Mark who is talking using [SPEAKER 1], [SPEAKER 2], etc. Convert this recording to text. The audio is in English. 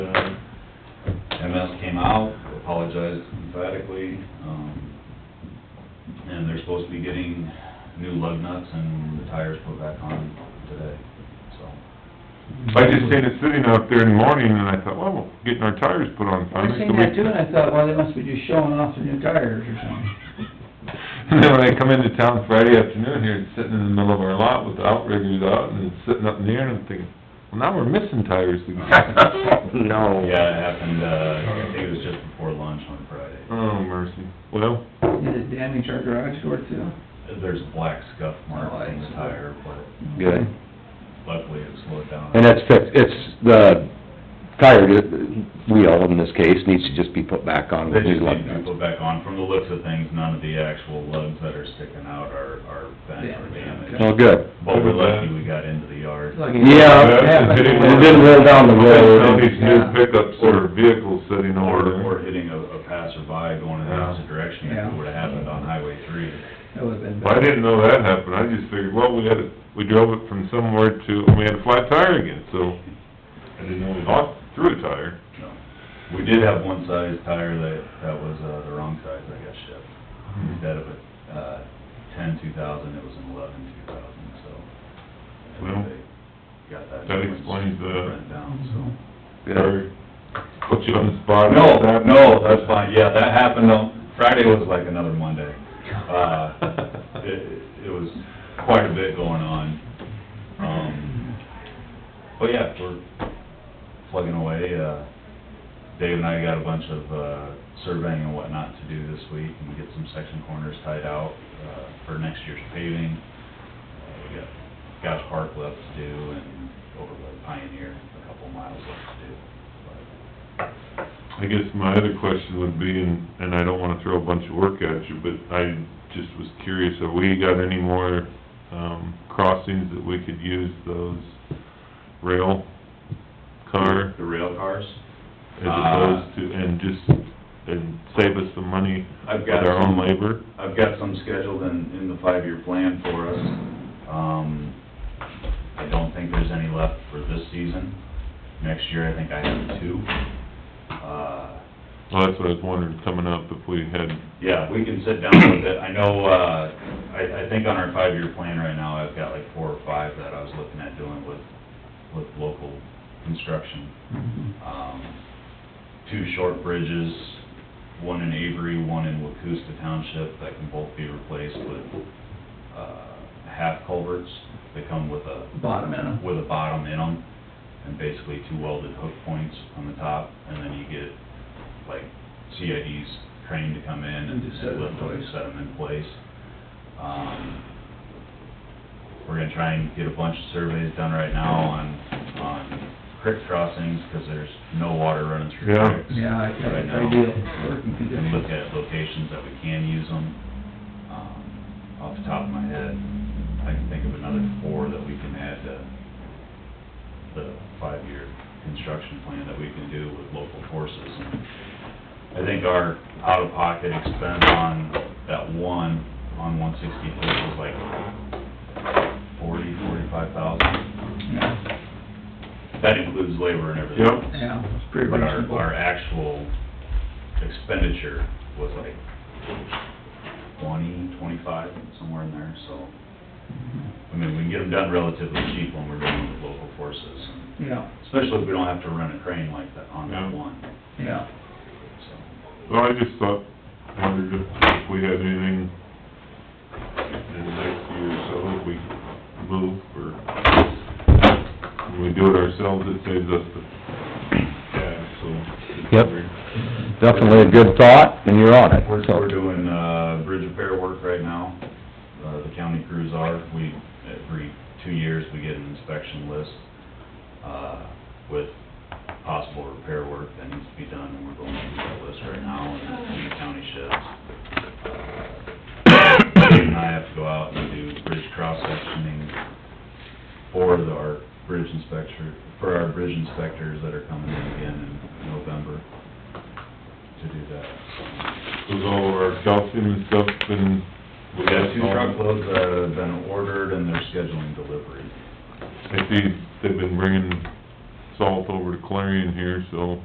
[SPEAKER 1] uh, emphatically, um, and they're supposed to be getting new lug nuts and the tires put back on today, so.
[SPEAKER 2] I just seen it sitting out there in the morning, and I thought, well, we're getting our tires put on
[SPEAKER 3] I
[SPEAKER 2] Sunday. so
[SPEAKER 3] seen
[SPEAKER 2] we-"
[SPEAKER 3] that too, and I thought, well, they must be just showing off their new tires or something.
[SPEAKER 2] And then when I come into town Friday afternoon here, it's sitting in the middle of our lot with the outriggers out, and it's sitting up in the air, and I'm thinking, well, now we're missing tires again. No.
[SPEAKER 1] Yeah, it happened, uh, I think it was just before lunch on Friday.
[SPEAKER 2] Oh, mercy. Well,
[SPEAKER 3] Did it damage our garage door too?
[SPEAKER 1] There's a black scuff mark on the tire, but
[SPEAKER 4] Good.
[SPEAKER 1] luckily it slowed down.
[SPEAKER 4] And that's fixed, it's the tire uh, wheel in this case needs to just be put back on
[SPEAKER 1] They
[SPEAKER 4] with new
[SPEAKER 1] just
[SPEAKER 4] lug
[SPEAKER 1] need to
[SPEAKER 4] nuts.
[SPEAKER 1] put back on. From the looks of things, none of the actual lugs that are sticking out are, are bent or
[SPEAKER 3] Damaged,
[SPEAKER 1] damaged.
[SPEAKER 4] Oh, good.
[SPEAKER 1] But we're lucky we got into the yard.
[SPEAKER 4] Yeah,
[SPEAKER 2] Yeah, it
[SPEAKER 4] it didn't roll down the
[SPEAKER 2] now
[SPEAKER 4] road.
[SPEAKER 2] these new pickups or vehicles sitting
[SPEAKER 1] Or,
[SPEAKER 2] over there.
[SPEAKER 1] or hitting a, a passerby going in the opposite direction if it
[SPEAKER 3] Yeah.
[SPEAKER 1] would've happened on Highway three.
[SPEAKER 3] That would've been
[SPEAKER 2] Well, I
[SPEAKER 3] bad.
[SPEAKER 2] didn't know that happened, I just figured, well, we had, it- we drove it from somewhere to, and we had a flat tire again, so I didn't know we lost, through a tire.
[SPEAKER 1] No. We did have one size tire that, that was, uh, the wrong size, I guess, shipped.
[SPEAKER 2] Hmm.
[SPEAKER 1] Instead of a, uh, ten two thousand, it was an eleven two thousand, so. I
[SPEAKER 2] Well,
[SPEAKER 1] think they got that.
[SPEAKER 2] that
[SPEAKER 1] difference
[SPEAKER 2] explains the-
[SPEAKER 1] written Down, so.
[SPEAKER 4] Good.
[SPEAKER 2] Sorry. Put you on the spot.
[SPEAKER 1] No, no, that's fine, yeah, that happened on, Friday was like another Monday. Uh, it, it was quite a bit going on. Um, but yeah, we're plugging away, uh, Dave and I got a bunch of, uh, surveying and whatnot to do this week and get some section corners tied out, uh, for next year's paving. Uh, We got Gosh Park left to do and over by Pioneer, a couple miles left to do, but.
[SPEAKER 2] I guess my other question would be, and, and I don't wanna throw a bunch of work at you, but I just was curious, have we got any more, um, crossings that we could use those rail car
[SPEAKER 1] The rail cars. Uh,
[SPEAKER 2] as opposed to, and just, and save us some money
[SPEAKER 1] I've
[SPEAKER 2] with
[SPEAKER 1] got
[SPEAKER 2] our own
[SPEAKER 1] some,
[SPEAKER 2] labor?
[SPEAKER 1] I've got some scheduled in, in the five-year plan for us. Um, I don't think there's any left for this season. Next year, I think I have two. Uh,
[SPEAKER 2] Well, that's what I was wondering, coming up, if we had,
[SPEAKER 1] yeah, we can sit down with it. I know, uh, I, I think on our five-year plan right now, I've got like four or five that I was looking at doing with, with local construction.
[SPEAKER 3] Mhm.
[SPEAKER 1] um, two short bridges, one in Avery, one in Wacusta Township, that can both be replaced with, uh, half culverts that come with a,
[SPEAKER 3] Bottom end.
[SPEAKER 1] with a bottom in them, and basically two welded hook points on the top, and then you get, like, CID's crane to come in and
[SPEAKER 3] And just set it in
[SPEAKER 1] lift them,
[SPEAKER 3] place.
[SPEAKER 1] set them in place. Um, we're gonna try and get a bunch of surveys done right now on, on creek crossings, 'cause there's no water running through
[SPEAKER 2] Yeah.
[SPEAKER 1] creeks.
[SPEAKER 3] Yeah, I,
[SPEAKER 1] right
[SPEAKER 3] I
[SPEAKER 1] now.
[SPEAKER 3] ideal working
[SPEAKER 1] And look
[SPEAKER 3] conditions.
[SPEAKER 1] at locations that we can use them. Um, Off the top of my head, I can think of another four that we can add to the five-year construction plan that we can do with local forces. And I think our out-of-pocket expense on that one, on one sixty-four was like forty, forty-five thousand.
[SPEAKER 3] Yeah,
[SPEAKER 1] That includes labor and everything.
[SPEAKER 2] Yep.
[SPEAKER 3] yeah, it's pretty
[SPEAKER 1] But our,
[SPEAKER 3] reasonable.
[SPEAKER 1] our actual expenditure was like twenty, twenty-five, somewhere in there, so. I mean, we can get them done relatively cheap when we're dealing with local forces,
[SPEAKER 3] Yeah,
[SPEAKER 1] especially if we don't have to rent a crane like that on that
[SPEAKER 2] Yeah.
[SPEAKER 1] one,
[SPEAKER 3] yeah.
[SPEAKER 1] so.
[SPEAKER 2] well, I just thought, wondered if if we had anything in the next year or so, if we move or, when we do it ourselves, it saves us the cash, so.
[SPEAKER 4] Yep. Definitely a good thought, and you're on it,
[SPEAKER 1] We're,
[SPEAKER 4] so.
[SPEAKER 1] we're doing, uh, bridge repair work right now, uh, the county crews are, we, every two years, we get an inspection list, uh, with possible repair work that needs to be done, and we're going through that list right now, and in the county sheds. Dave and I have to go out and do bridge cross-sectioning for the, our bridge inspector, for our bridge inspectors that are coming in again in November to do that, so.
[SPEAKER 2] With all of our calcium and stuff and.
[SPEAKER 1] We got two truckloads that have been ordered and they're scheduling delivery.
[SPEAKER 2] I see they've been bringing salt over to Clarion here, so